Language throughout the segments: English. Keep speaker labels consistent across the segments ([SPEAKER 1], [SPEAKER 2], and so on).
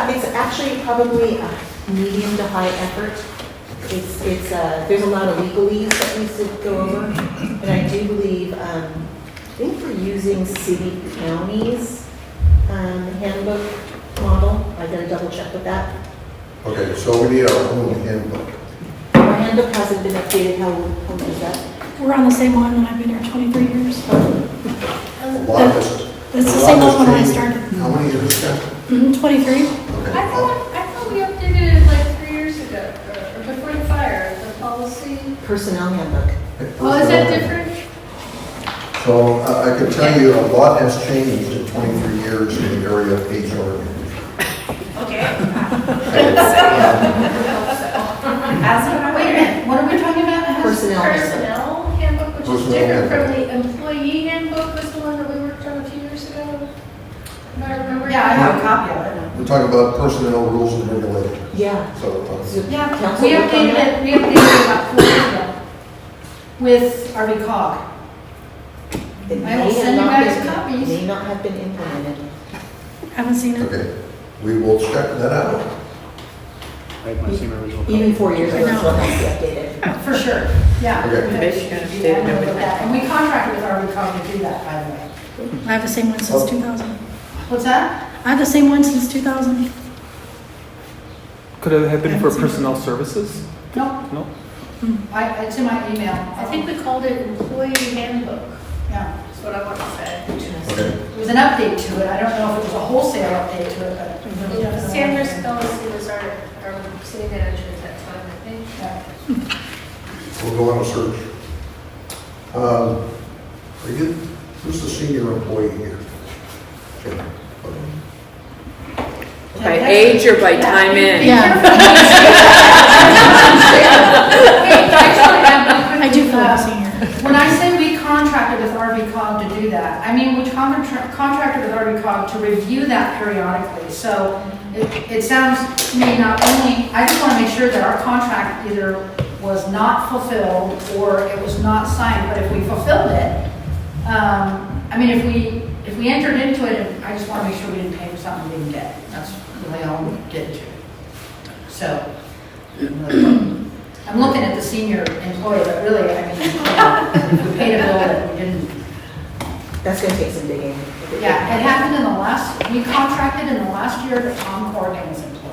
[SPEAKER 1] actually probably a medium to high effort. It's, it's, uh, there's a lot of legalese that needs to go over, and I do believe, um, I think we're using city counties um, handbook model. I gotta double check with that.
[SPEAKER 2] Okay, so we need our own handbook.
[SPEAKER 1] Our handbook hasn't been updated, how, how is that?
[SPEAKER 3] We're on the same one, and I've been here 23 years.
[SPEAKER 2] A lot has-
[SPEAKER 3] That's
[SPEAKER 2] a
[SPEAKER 3] the
[SPEAKER 2] lot
[SPEAKER 3] same
[SPEAKER 2] has
[SPEAKER 3] one when I
[SPEAKER 2] changed.
[SPEAKER 3] started.
[SPEAKER 2] How many years ago?
[SPEAKER 3] Mhm, 23?
[SPEAKER 4] I
[SPEAKER 2] Okay.
[SPEAKER 4] thought, I thought we updated it like three years ago, or or before the fire, the policy.
[SPEAKER 1] Personnel handbook.
[SPEAKER 4] Oh, is that different?
[SPEAKER 2] So uh, I I can tell you a lot has changed in 23 years in the area of HR.
[SPEAKER 5] Okay,
[SPEAKER 2] Um,
[SPEAKER 5] ask him, wait a minute, what are we talking about?
[SPEAKER 1] Personnel handbook.
[SPEAKER 4] Personnel handbook, which is
[SPEAKER 2] Personnel
[SPEAKER 4] different from
[SPEAKER 2] handbook.
[SPEAKER 4] the employee handbook, was the one that we worked on a few years ago? Am I remembering?
[SPEAKER 5] Yeah, I have a copy of it.
[SPEAKER 2] We're talking about personnel rules and regulations,
[SPEAKER 1] Yeah.
[SPEAKER 2] so.
[SPEAKER 1] So
[SPEAKER 2] um,
[SPEAKER 5] Yeah,
[SPEAKER 1] council
[SPEAKER 5] we
[SPEAKER 1] worked on
[SPEAKER 5] updated
[SPEAKER 1] that?
[SPEAKER 5] it, we updated it about four years ago with Artie Cog.
[SPEAKER 1] It
[SPEAKER 5] I will
[SPEAKER 1] may have
[SPEAKER 5] send you
[SPEAKER 1] not
[SPEAKER 5] guys
[SPEAKER 1] been-
[SPEAKER 5] copies.
[SPEAKER 1] May not have been implemented.
[SPEAKER 3] Haven't seen it.
[SPEAKER 2] Okay, we will check that out.
[SPEAKER 6] I have my same original.
[SPEAKER 1] Even four years ago, it's
[SPEAKER 3] No.
[SPEAKER 1] not updated.
[SPEAKER 5] For sure, yeah.
[SPEAKER 2] Okay.
[SPEAKER 5] We should do that, and look at that. And we contracted with Artie Cog to do that, by the way.
[SPEAKER 3] I have the same one since 2000.
[SPEAKER 5] What's that?
[SPEAKER 3] I have the same one since 2000.
[SPEAKER 6] Could it have been for personnel services?
[SPEAKER 5] No, Hmm,
[SPEAKER 6] No?
[SPEAKER 5] I, it's in my email.
[SPEAKER 4] I think we called it employee handbook,
[SPEAKER 5] Yeah,
[SPEAKER 4] is what I want to say.
[SPEAKER 2] Okay,
[SPEAKER 5] it was an update to it, I don't know if it was a wholesale update to it, but.
[SPEAKER 4] Yeah, Sanders Spelling was our, our city manager um, at that time, I think.
[SPEAKER 5] Yeah.
[SPEAKER 2] we'll go on a search. Um, Are you, who's the senior employee here? Okay, okay.
[SPEAKER 7] By age or by time in?
[SPEAKER 3] I do
[SPEAKER 5] Uh,
[SPEAKER 3] feel like a senior.
[SPEAKER 5] When I say we contracted with RV Cog to do that, I mean, we contra- contracted with RV Cog to review that periodically. So it, it sounds to me not only, I just want to make sure that our contract either was not fulfilled or it was not signed, but if we fulfilled it, um, I mean, if we, if we entered into it, I just want to make sure we didn't pay for something we didn't get. That's really all we did to. So. I'm looking at the senior employee, but really, I mean, we paid a bill that we didn't.
[SPEAKER 1] That's gonna take some digging.
[SPEAKER 5] Yeah, it happened in the last, we contracted in the last year that Tom Corrigan was employed.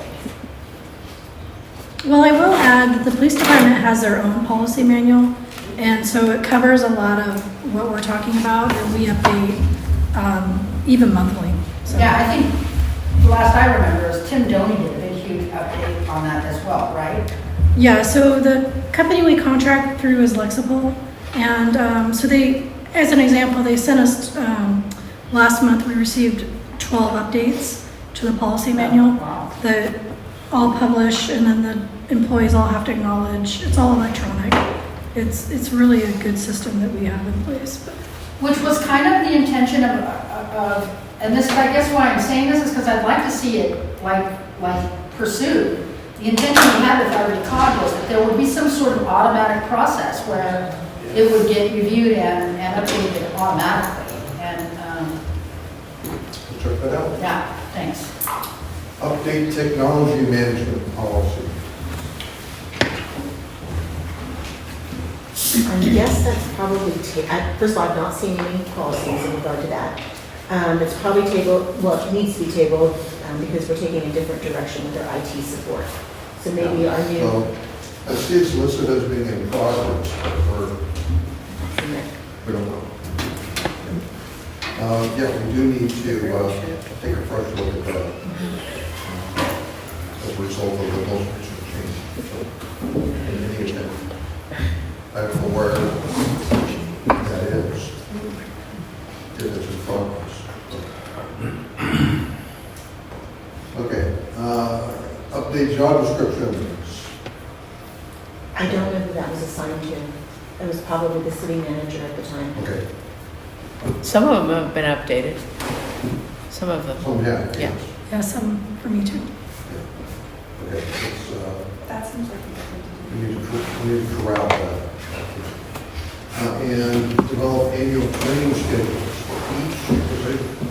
[SPEAKER 3] Well, I will add that the police department has their own policy manual, and so it covers a lot of what we're talking about, and we update um, even monthly. So
[SPEAKER 5] Yeah, I think, the last I remember is Tim Doney did a big huge update on that as well, right?
[SPEAKER 3] Yeah, so the company we contract through is Lexipol, and um, so they, as an example, they sent us, um, last month, we received 12 updates to the policy manual
[SPEAKER 5] Wow.
[SPEAKER 3] that all publish, and then the employees all have to acknowledge. It's all electronic. It's, it's really a good system that we have in place. But
[SPEAKER 5] Which was kind of the intention of, of, and this, I guess why I'm saying this is because I'd like to see it like, like pursued. The intention we had with our recog was that there would be some sort of automatic process where it would get reviewed and, and updated automatically. And, um,
[SPEAKER 2] We'll check that out.
[SPEAKER 5] yeah, thanks.
[SPEAKER 2] Update technology management policy.
[SPEAKER 1] I guess that's probably, ta- I- first of all, I've not seen any policies in regard to that. Um, It's probably tabled, well, it needs to be tabled um, because we're taking a different direction with our IT support. So maybe our new,
[SPEAKER 2] So I see it's listed as being in progress, or we don't know. Uh, Yeah, we do need to uh, take a fresh look at that as a result of the most recent change. So, in any event, I don't know where that is. It is in progress. Okay, uh, update job descriptions.
[SPEAKER 1] I don't know who that was assigned to. It was probably the city manager at the time.
[SPEAKER 2] Okay,
[SPEAKER 7] Some of them have been updated. Some of them.
[SPEAKER 2] some have,
[SPEAKER 7] Yeah.
[SPEAKER 2] yes.
[SPEAKER 3] yeah, some for me too.
[SPEAKER 2] Okay, it's, uh,
[SPEAKER 5] That seems like
[SPEAKER 2] We need to, cor- we need to corral that. Uh, And develop annual training schedules for each position.